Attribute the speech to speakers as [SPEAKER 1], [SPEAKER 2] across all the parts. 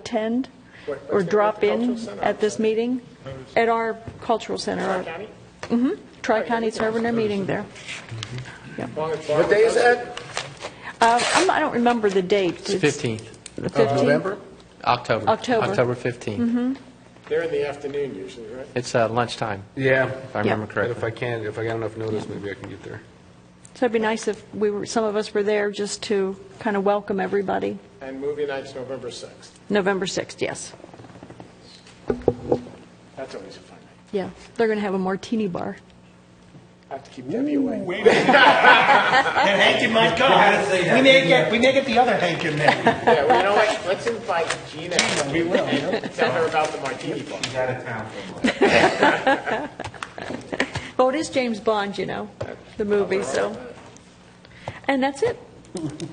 [SPEAKER 1] attend
[SPEAKER 2] Where-
[SPEAKER 1] or
[SPEAKER 2] where's the-
[SPEAKER 1] drop
[SPEAKER 2] where's the
[SPEAKER 1] in
[SPEAKER 2] cultural center?
[SPEAKER 1] at this meeting at our cultural center. Mm-hmm. our-
[SPEAKER 2] County?
[SPEAKER 1] Tri-County's having their meeting there.
[SPEAKER 2] What day is that?
[SPEAKER 1] Uh, I'm- I don't remember the date.
[SPEAKER 3] It's 15th,
[SPEAKER 1] The 15th?
[SPEAKER 3] October.
[SPEAKER 1] October.
[SPEAKER 3] October 15th.
[SPEAKER 2] They're in the afternoon usually, right?
[SPEAKER 3] It's uh, lunchtime,
[SPEAKER 4] Yeah,
[SPEAKER 3] if I remember
[SPEAKER 4] and if I
[SPEAKER 3] correctly.
[SPEAKER 4] can, if I got enough notice, maybe I can get there.
[SPEAKER 1] So it'd be nice if we were, some of us were there just to kind of welcome everybody.
[SPEAKER 2] And movie night's November 6th.
[SPEAKER 1] November 6th, yes.
[SPEAKER 2] That's always a fun night.
[SPEAKER 1] Yeah, they're going to have a martini bar.
[SPEAKER 2] I have to keep Debbie away.
[SPEAKER 5] And Hank in my car. We may get, we may get the other Hank in there.
[SPEAKER 2] Yeah, well, you know what, let's invite Gina
[SPEAKER 5] We will. you know?
[SPEAKER 2] and tell her about the martini bar.
[SPEAKER 5] He's out of town for a while.
[SPEAKER 1] Oh, it is James Bond, you know, the movie, so. And that's it.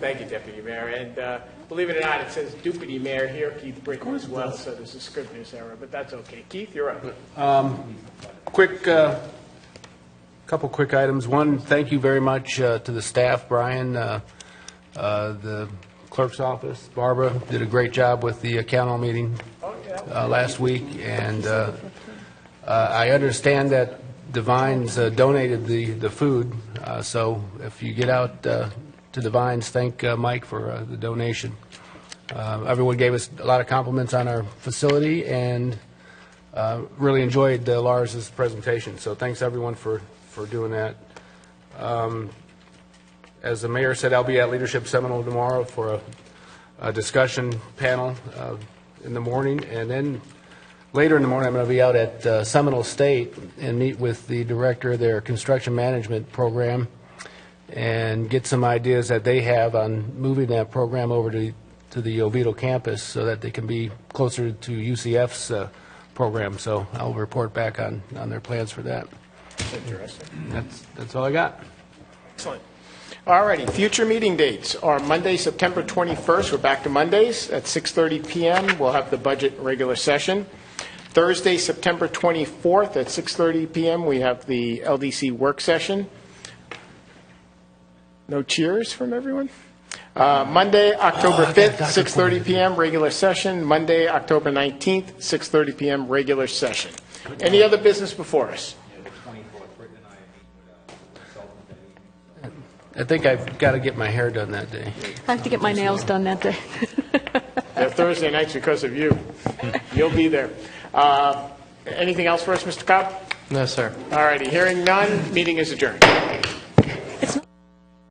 [SPEAKER 2] Thank you, Deputy Mayor, and uh, believe it or not, it says Deputy Mayor here, Keith Brinkley as well, so there's a Scrivener's error, but that's okay. Keith, you're up.
[SPEAKER 4] Quick, uh, couple quick items. One, thank you very much uh, to the staff, Brian, uh, uh, the clerk's office, Barbara, did a great job with the uh, council meeting uh, last week, and uh, uh, I understand that Divines uh, donated the the food, uh, so if you get out uh, to Divines, thank uh, Mike for uh, the donation. Uh, Everyone gave us a lot of compliments on our facility, and uh, really enjoyed uh, Lars's presentation, so thanks everyone for, for doing that. Um, As the mayor said, I'll be at Leadership Seminole tomorrow for a, a discussion panel uh, in the morning, and then later in the morning, I'm going to be out at uh, Seminole State and meet with the director of their construction management program and get some ideas that they have on moving that program over to, to the Oviedo campus so that they can be closer to UCF's uh, program. So I'll report back on, on their plans for that. Interesting. That's, that's all I got.
[SPEAKER 2] Excellent. All righty, future meeting dates are Monday, September 21st, we're back to Mondays, at 6:30 PM, we'll have the budget regular session. Thursday, September 24th, at 6:30 PM, we have the LDC work session. No cheers from everyone? Uh, Monday, October 5th, 6:30 PM, regular session. Monday, October 19th, 6:30 PM, regular session. Any other business before us?
[SPEAKER 4] I think I've got to get my hair done that day.
[SPEAKER 1] I have to get my nails done that day.
[SPEAKER 2] They're Thursday nights because of you. You'll be there. Uh, Anything else for us, Mr. Cobb?
[SPEAKER 3] No, sir.
[SPEAKER 2] All righty, hearing none, meeting is adjourned.